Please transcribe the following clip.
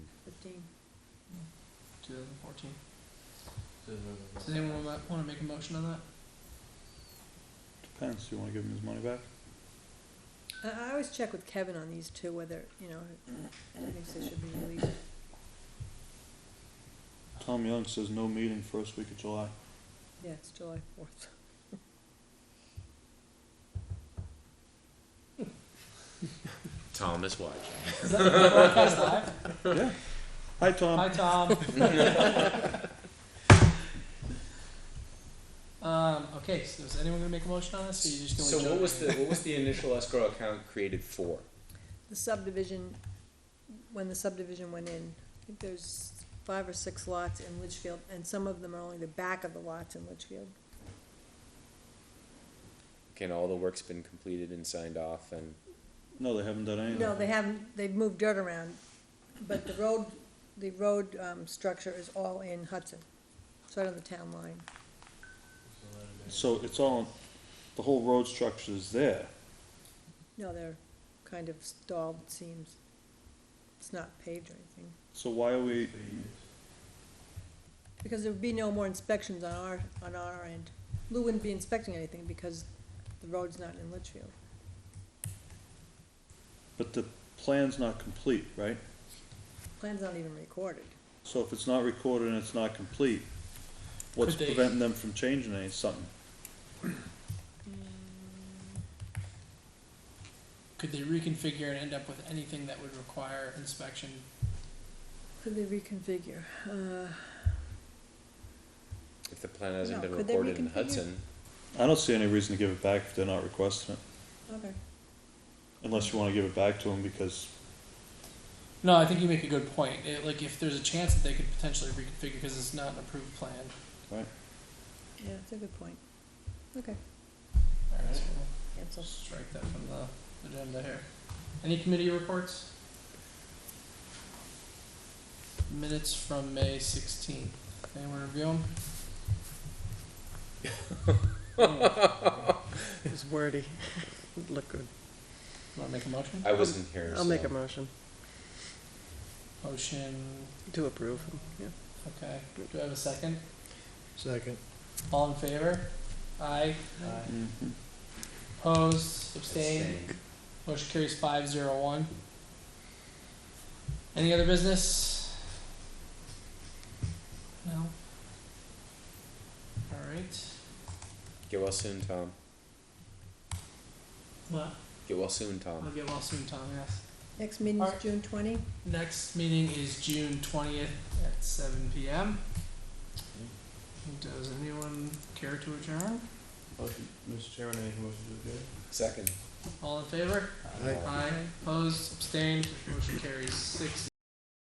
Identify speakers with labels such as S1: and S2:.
S1: fourteen.
S2: 2014. Does anyone want to make a motion on that?
S3: Depends, do you wanna give him his money back?
S1: I, I always check with Kevin on these two, whether, you know, he thinks they should be released.
S3: Tom Young says no meeting first week of July.
S1: Yeah, it's July fourth.
S4: Tom is watching.
S2: Is that is that broadcast live?
S3: Hi, Tom.
S2: Hi, Tom. Um, okay, so is anyone gonna make a motion on this, or you just gonna?
S4: So
S2: leave it
S4: what was
S2: open?
S4: the, what was the initial escrow account created for?
S1: The subdivision, when the subdivision went in, I think there's five or six lots in Litchfield, and some of them are only the back of the lots in Litchfield.
S4: Can all the work's been completed and signed off and,
S3: No, they haven't done anything.
S1: No, they haven't, they've moved dirt around, but the road, the road, um, structure is all in Hudson. It's right on the town line.
S3: So it's all, the whole road structure is there.
S1: No, they're kind of stalled, it seems. It's not paved or anything.
S3: So why are we,
S1: Because there'd be no more inspections on our, on our end. Lou wouldn't be inspecting anything because the road's not in Litchfield.
S3: but the plan's not complete, right?
S1: Plan's not even recorded.
S3: So if it's not recorded and it's not complete, what's
S2: Could they-
S3: preventing them from changing any, something?
S2: Could they reconfigure and end up with anything that would require inspection?
S1: Could they reconfigure? Uh,
S4: if the plan hasn't
S1: No,
S4: been
S1: could they
S4: recorded in
S1: reconfigure?
S4: Hudson?
S3: I don't see any reason to give it back if they're not requesting it,
S1: okay.
S3: unless you wanna give it back to them because
S2: No, I think you make a good point. It, like, if there's a chance that they could potentially reconfigure because it's not an approved plan.
S1: Yeah, that's a good point.
S2: All right, so we'll
S1: Cancel.
S2: strike that from the agenda here. Any committee reports? Minutes from May sixteenth. Anyone review them?
S5: It was wordy. It looked good.
S2: Want to make a motion?
S4: I wasn't here,
S5: I'll make a
S4: so-
S5: motion
S2: Motion,
S5: to approve. Yeah.
S2: okay. Do I have a second?
S6: Second.
S2: All in favor? Aye. Mm-hmm. Opposed, abstained,
S4: Abstain.
S2: motion carries five zero one. Any other business? No? Alright.
S4: Get well soon, Tom.
S2: Well,
S4: Get well soon,
S2: I'll
S4: Tom.
S2: get well soon, Tom, yes.
S1: Next meeting is
S2: Alright.
S1: June twenty.
S2: Next meeting is June twentieth at seven P M. Does anyone care to adjourn?
S6: Mr. Chairman, I make a motion to adjourn.
S4: Second.
S2: All in favor?
S6: Aye.
S2: Aye, opposed, abstained, motion carries six